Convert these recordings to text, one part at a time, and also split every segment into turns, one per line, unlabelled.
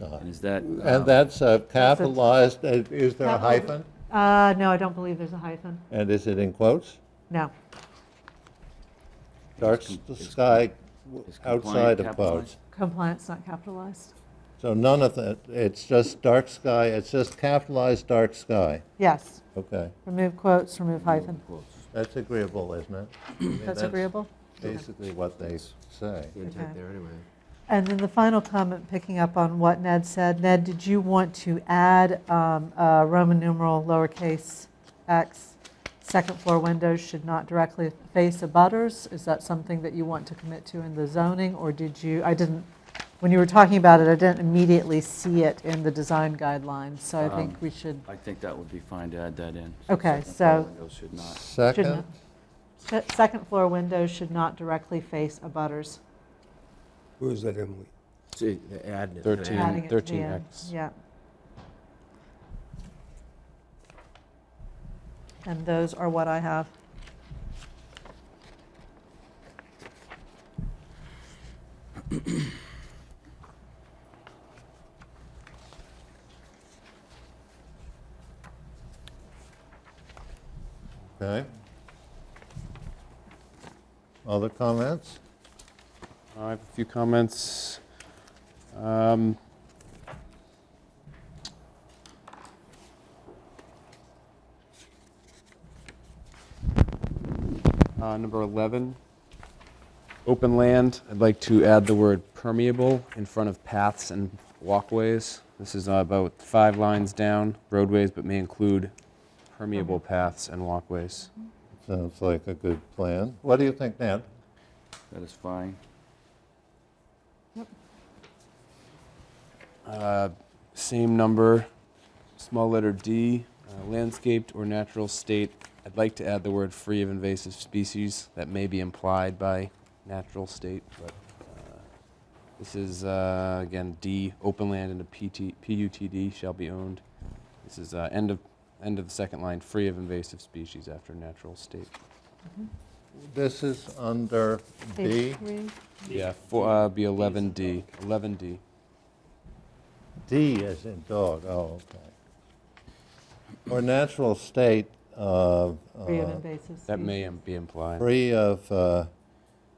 not.
And is that? um,
And that's uh, capitalized, uh, is there a
Capital-
hyphen?
Uh, no, I don't believe there's a hyphen.
And is it in quotes?
No.
Dark
com-
s-
it's
sky
is compliant
outside of
capitalized?
quotes.
Compliance not capitalized.
So none of that, it's just dark sky, it's just capitalized dark sky.
Yes.
Okay,
Remove quotes, remove hyphen.
Quotes.
that's agreeable, isn't it? I mean,
That's agreeable?
Basically what they say.
Okay.
there anyway.
And then the final comment, picking up on what Ned said, Ned, did you want to add um, uh, Roman numeral lowercase x, second floor windows should not directly face abutters? Is that something that you want to commit to in the zoning, or did you, I didn't, when you were talking about it, I didn't immediately see it in the design guidelines, so I think
Um,
we should,
I think that would be fine to add that in.
Okay,
second floor
so-
windows Should not.
Second,
not. se- second floor windows should not directly face abutters.
Where is that, Emily?
See, the ad. is gonna
Thirteen.
add-
Adding it to the
13
end,
X.
Yeah. And those are what I have.
okay. Other comments?
I have a few comments. Um, uh, Number 11, open land, I'd like to add the word permeable in front of paths and walkways. This is about five lines down, roadways, but may include permeable paths and walkways.
Sounds like a good plan. What do you think, Ned?
That is fine.
Uh, Same number, small letter D, uh, landscaped or natural state. I'd like to add the word free of invasive species. That may be implied by natural state, but uh, this is, uh, again, D, open land in a PT PUTD shall be owned. This is uh, end of, end of the second line, free of invasive species after natural state.
This is under
Page
D.
three.
Yeah, four- uh, be 11D, 11D.
D as in dog, oh, okay. Or natural state of,
Free of
uh,
invasive
That may
species.
im- be implied.
free of, uh,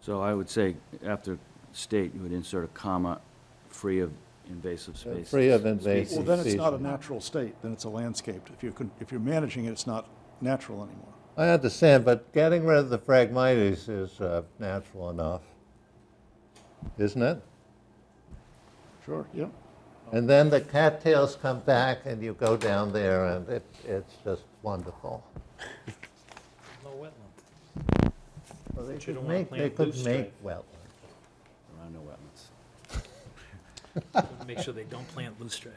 So I would say after state, you would insert a comma, free of invasive
uh,
species.
free of invasive
Well, then it's not a
species.
natural state, then it's a landscaped. If you're, con- if you're managing it, it's not natural anymore.
I understand, but getting rid of the phragmites is uh, natural enough, isn't it?
Sure, yeah.
And then the cattails come back and you go down there and it, it's just wonderful.
No wetland.
Well, They
you
could
don't wanna
make,
plant
they could
loosestrife.
make wetlands.
There are no wetlands.
Make sure they don't plant loosestrife.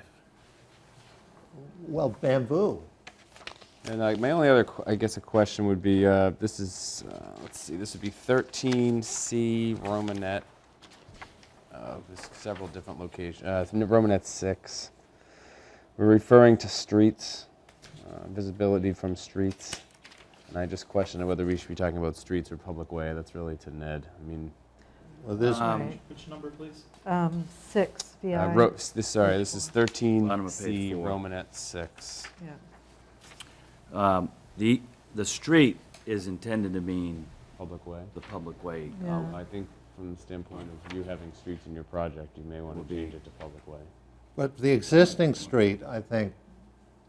Well, bamboo.
And uh, my only other, qu- I guess, a question would be, uh, this is, uh, let's see, this would be 13C Romanet. Uh, there's several different locations. Uh, it's n- Romanet 6. We're referring to streets, uh, visibility from streets. And I just question whether we should be talking about streets or public way. That's really to Ned. I mean,
Well, this,
Right.
Um, Which number, please?
Um, Six,
uh,
VI.
ro- s- this, sorry, this is 13C
Bottom of page four.
Romanet 6.
Yeah.
Um, The, the street is intended to mean
Public way.
the public way. uh,
Yeah.
I think from the standpoint of you having streets in your project, you may want to change it to public way.
but the existing street, I think,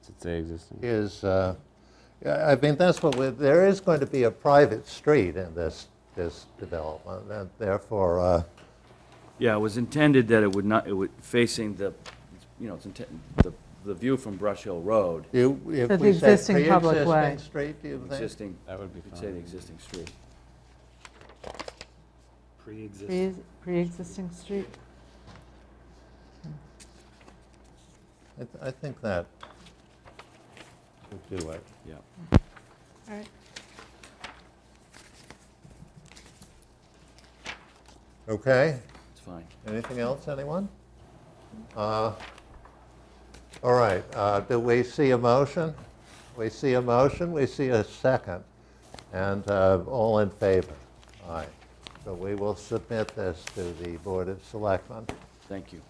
Does it say existing?
is, uh, I I mean, that's what, we- there is going to be a private street in this, this development, and therefore, uh,
Yeah, it was intended that it would not, it would, facing the, you know, it's inten- the, the view from Brush Hill Road,
you- if
So the
we say
existing public way.
pre-existing street, do you think?
existing,
That would be
you'd say the
fine.
existing street.
Pre-existing.
Pre- Pre-existing street.
I th- I think that would do it.
Yeah.
All right.
Okay?
It's fine.
Anything else, anyone? Uh, All right, uh, do we see a motion? We see a motion, we see a second, and uh, all in favor? Aye. So we will submit this to the Board of Selectmen.
Thank you.